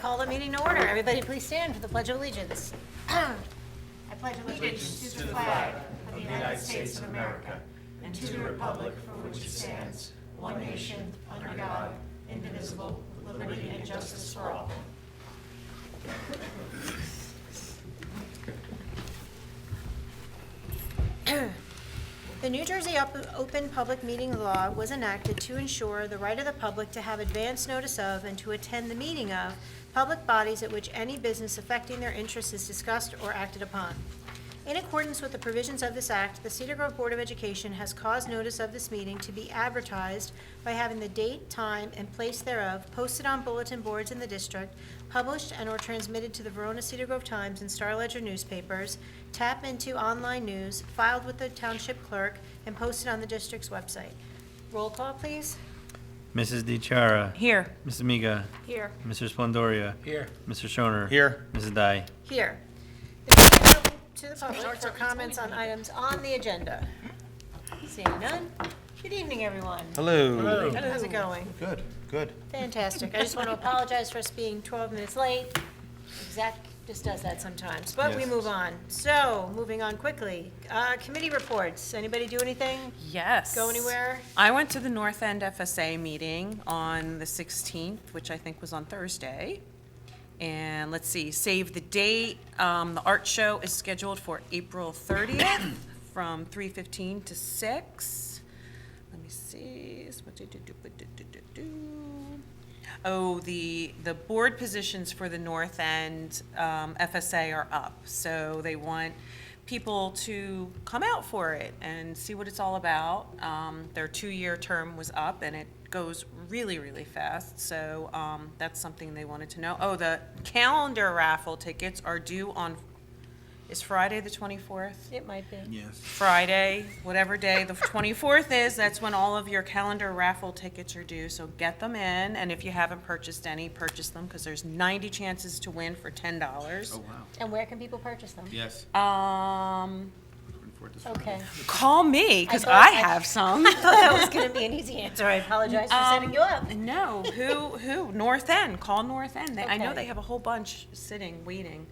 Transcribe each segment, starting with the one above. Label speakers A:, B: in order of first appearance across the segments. A: call the meeting to order. Everybody please stand for the Pledge of Allegiance. I pledge allegiance to the flag of the United States of America and to the republic for which it stands, one nation, under God, indivisible, with liberty and justice for all. The New Jersey Op- Open Public Meeting Law was enacted to ensure the right of the public to have advance notice of and to attend the meeting of public bodies at which any business affecting their interests is discussed or acted upon. In accordance with the provisions of this act, the Cedar Grove Board of Education has caused notice of this meeting to be advertised by having the date, time, and place thereof posted on bulletin boards in the district, published and/or transmitted to the Verona Cedar Grove Times and Star Ledger newspapers, tap into online news, filed with the township clerk, and posted on the district's website. Roll call, please.
B: Mrs. DeChara.
C: Here.
B: Mrs. Miga.
C: Here.
B: Mr. Splendoria.
D: Here.
B: Mr. Shoner.
D: Here.
B: Mrs. Dai.
A: Here. The floor is open To the public for comments on items on the agenda. Seeing none. Good evening, everyone.
D: Hello.
A: How's it going?
D: Good, good.
A: Fantastic. I just want to apologize for us being 12 minutes late. Zach just does that sometimes, but we
B: Yes.
A: move on. So, moving on quickly, Uh, committee reports. Anybody do anything?
C: Yes.
A: Go anywhere?
C: I went to the North End FSA meeting on the 16th, which I think was on Thursday. And let's see, save the date. Um, The art show is scheduled for April 30th from 3:15 to 6. Let me see. It's what do- do- do- do- do- do- do. Oh, the, the board positions for the North End um, FSA are up. So they want people to come out for it and see what it's all about. Um, Their two-year term was up and it goes really, really fast. So um, that's something they wanted to know. Oh, the calendar raffle tickets are due on, is Friday the 24th?
A: It might be.
B: Yes.
C: Friday, whatever day the 24th is, that's when all of your calendar raffle tickets are due, so get them in. And if you haven't purchased any, purchase them, because there's 90 chances to win for $10.
A: And where can people purchase them?
B: Yes.
C: Um,
A: Okay.
C: call me, because
A: thought
C: I
A: I-
C: have some.
A: I thought that was going to be an easy answer. I apologize for setting you up.
C: No, who, who? North End, call North End. They- I know
A: Okay.
C: they have a whole bunch sitting, waiting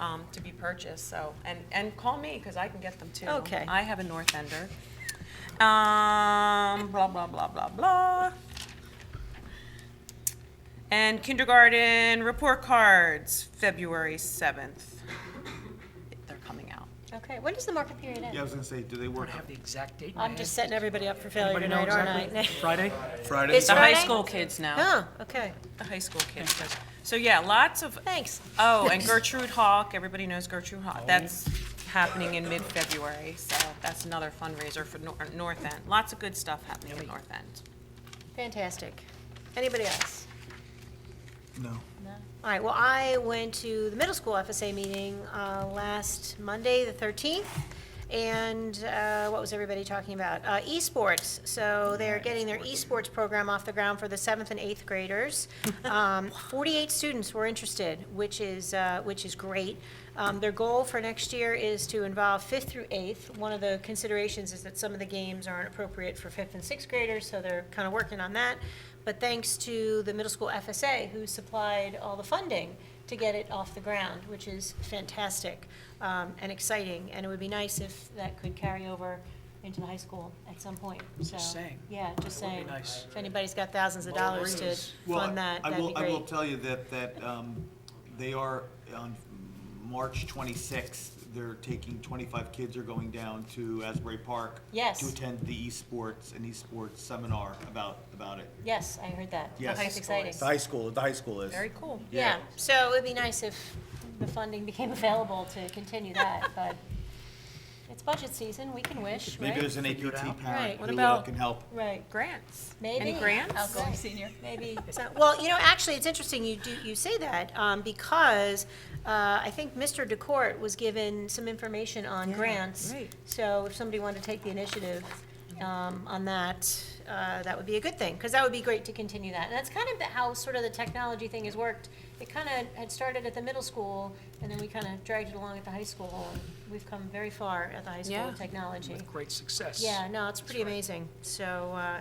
C: um, to be purchased, so, and, and call me, because I can get them too.
A: Okay.
C: I have a North Ender. Um, blah, blah, blah, blah, blah. And kindergarten report cards, February 7th. They're coming out.
A: Okay, when does the market period end?
E: Yeah, I was gonna say, do they work?
F: have the exact date. in my
A: I'm
F: head.
A: just setting everybody up for failure
F: Anybody know
A: tonight, aren't I?
F: exactly? Friday?
E: Friday?
A: This
C: The high
A: Friday?
C: school kids now,
A: Oh, okay.
C: the high school kids. so- So, yeah, lots of
A: Thanks.
C: Oh, and Gertrude Hawk, everybody knows Gertrude Hawk. That's happening in mid-February, so that's another fundraiser for Nor- North End. Lots of good stuff happening in North End.
A: Fantastic. Anybody else?
E: No.
A: All right, well, I went to the middle school FSA meeting uh, last Monday, the 13th, and uh, what was everybody talking about? Uh, Esports, so they're getting their esports program off the ground for the seventh and eighth graders. Um, 48 students were interested, which is, uh, which is great. Um, Their goal for next year is to involve fifth through eighth. One of the considerations is that some of the games aren't appropriate for fifth and sixth graders, so they're kind of working on that. But thanks to the middle school FSA, who supplied all the funding to get it off the ground, which is fantastic um, and exciting. And it would be nice if that could carry over into the high school at some point, so.
F: saying.
A: Yeah, just
F: That would be
A: saying.
F: nice.
A: If anybody's got thousands of dollars to
E: Well,
A: fund that,
E: I
A: that'd be
E: will, I will
A: great.
E: tell you that, that, um, they are, on March twenty-sixth, they're taking, twenty-five kids are going down to Asbury Park.
A: Yes.
E: To attend the esports and esports seminar about, about it.
A: Yes, I heard that.
E: Yes.
A: That's exciting.
E: high school, the high school is.
C: Very cool.
A: Yeah,
E: Yeah.
A: so it'd be nice if the funding became available to continue that, but it's budget season, we can wish,
E: Maybe
A: right?
E: there's an APT
A: Right.
E: parent
A: What
E: who
C: about-
E: uh, can help.
A: Right,
C: Grants?
A: maybe.
C: Any grants?
A: Outgoing senior. Maybe, so- well, you know, actually, it's interesting you do, you say that, um, because, uh, I think Mr. DeCourt was given some information on grants.
C: right.
A: So if somebody wanted to take the initiative, um, on that, uh, that would be a good thing, because that would be great to continue that. And that's kind of the- how sort of the technology thing has worked. It kind of had started at the middle school, and then we kind of dragged it along at the high school, and we've come very far at the high school
C: Yeah.
A: with technology.
F: With great success.
A: Yeah, no, it's pretty amazing, so, uh,